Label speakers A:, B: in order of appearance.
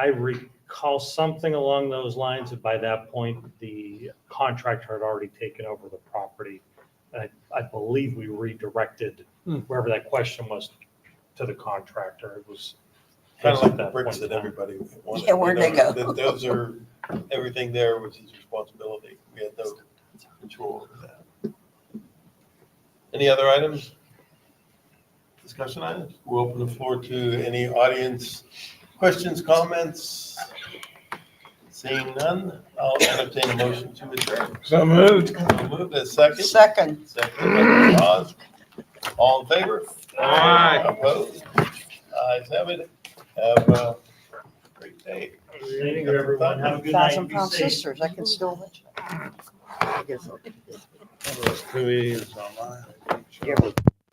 A: I recall something along those lines, and by that point, the contractor had already taken over the property. And I, I believe we redirected
B: Hmm.
A: wherever that question was to the contractor. It was.
C: Kind of like
A: at
C: the
A: that
C: bricks
A: point in
C: that
A: time.
C: everybody wanted.
D: Yeah, where'd
C: you
D: they
C: know,
D: go?
C: that Those are, everything there was his responsibility. We had no control over that. Any other items? Discussion items? We'll open the floor to any audience questions, comments? Seeing none, I'll entertain a motion to adjourn.
B: So moved.
C: I'll Move to second.
D: Second.
C: Second, by Mr. Oz. All in favor?
B: Aye.
C: Opposed? Ayes have it. Have a great day.
A: Thank you, everyone. Have a good night.
D: Thousand
A: Be
D: Pound
A: safe.
D: Sisters, I can still. watch it. I guess I'll-
B: Those two is online.
D: Yeah, we-